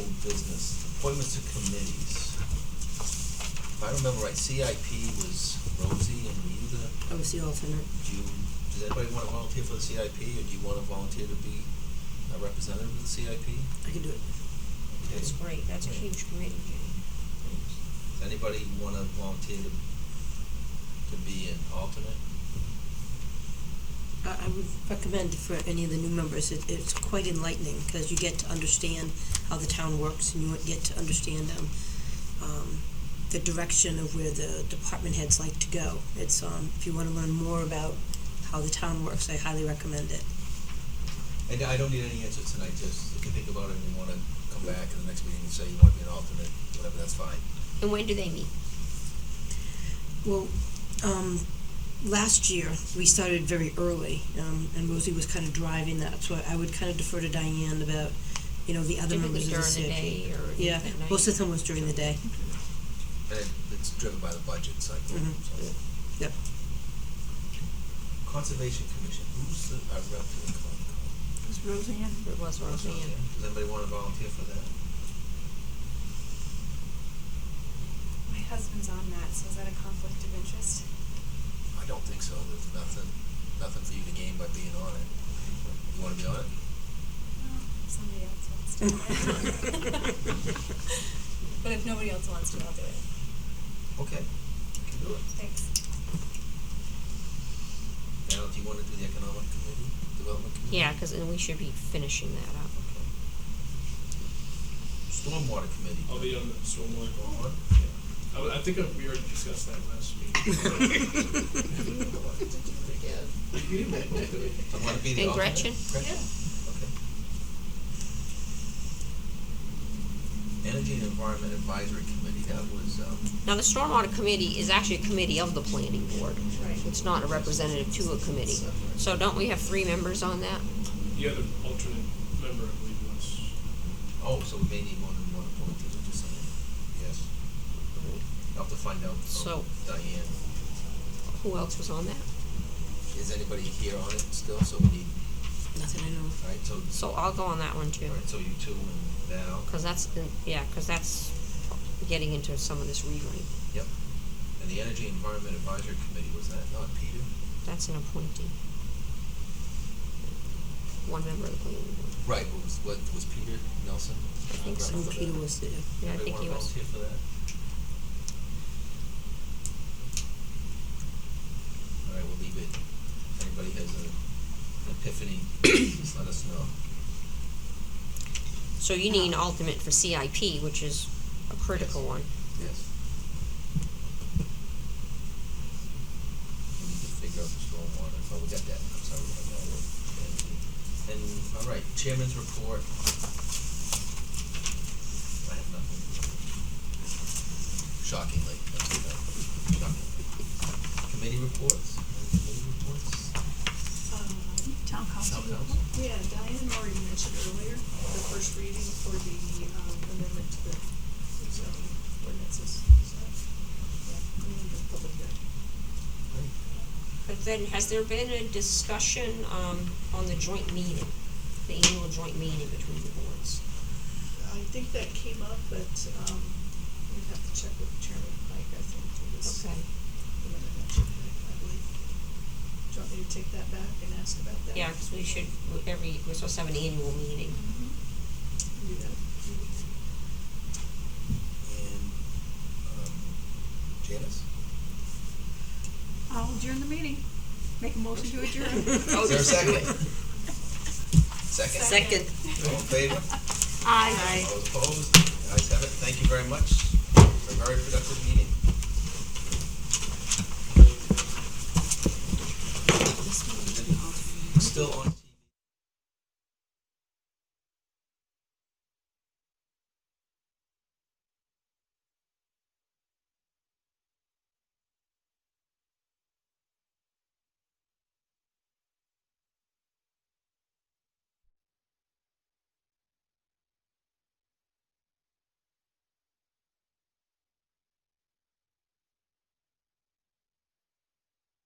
business, appointments to committees. If I remember right, CIP was Rosie and were you the, I was the alternate. do you, does anybody wanna volunteer for the CIP or do you wanna volunteer to be a representative of the CIP? I can do it. Okay. That's great, that's a huge committee, Jane. Does anybody wanna volunteer to, to be an alternate? I, I would recommend for any of the new members, it, it's quite enlightening because you get to understand how the town works and you get to understand um, um, the direction of where the department heads like to go. It's um, if you want to learn more about how the town works, I highly recommend it. And I don't need any answer tonight, just if you think about it and you wanna come back in the next meeting and say you wanna be an alternate, whatever, that's fine. And when do they meet? Well, um, last year, we started very early, um, and Rosie was kind of driving that, so I would kind of defer to Diane about, you know, the other members Typically of the CIP. during the day or Yeah, at night? most of the time was during the day. And it, it's driven by the budget cycle, Mhm. so. Yep. Conservation Commission, who's the, our rep to the con- Is Roseanne? It was con- Roseanne. Does anybody wanna volunteer for that? My husband's on that, so is that a conflict of interest? I don't think so, there's nothing, nothing for you to gain by being on it. You wanna be on it? Well, somebody else wants to. But if nobody else wants to, I'll do it. Okay, you can do it. Thanks. Now, do you wanna do the Economic Committee, Development Committee? Yeah, because we should be finishing that up. Okay. Stormwater Committee. I'll be on the stormwater All right. going on. I, I think we already discussed that last meeting. Do you wanna be the And alternate? Gretchen? Gretchen? Okay. Energy and Environment Advisory Committee, that was, um, Now, the Stormwater Committee is actually a committee of the planning board. Right. It's not a representative to a committee. So don't we have three members on that? The other alternate member, I believe, was, oh, so we may need more than one appointee, which is something. Yes. I'll have to find out from So- Diane, Who else was on that? is anybody here on it still, so we need, Nothing I know of. alright, so, So I'll go on that one too. alright, so you two and Val, Because that's, yeah, because that's getting into some of this rewriting. yep. And the Energy and Environment Advisory Committee, was that not Peter? That's an appointee. One member of the planning board. Right, what was, what, was Peter Nelson? I think so. Oh, Peter was there. Yeah, I think Anybody he was. wanna volunteer for that? All right, we'll leave it. If anybody has a an epiphany, just let us know. So you need an alternate for CIP, which is a critical one. Yes. We need to figure out the stormwater, oh, we got that, I'm sorry, we got that. And, all right, chairman's report. I have nothing. Shockingly, that's what I- shockingly. Committee reports, any committee reports? Um, Town council. Town council? Yeah, Diane already mentioned earlier, the first reading for the um, amendment to the zoning ordinances. so, yeah, we need a public hearing. But then, has there been a discussion, um, on the joint meeting, the annual joint meeting between the boards? I think that came up, but um, we'd have to check with Chairman Pike, I think, for this. Okay, the amendment, I believe. Do you want me to take that back and ask about that? yeah, because we should, we- every, we're supposed to have an annual meeting. Mhm. Do that. And, um, Janice? I'll adjourn the meeting. Make a motion to adjourn. Oh, Is there a just second? Second? Second. All in favor? Aye. All opposed? Ayes have it. Thank you very much. A very productive meeting. Still on.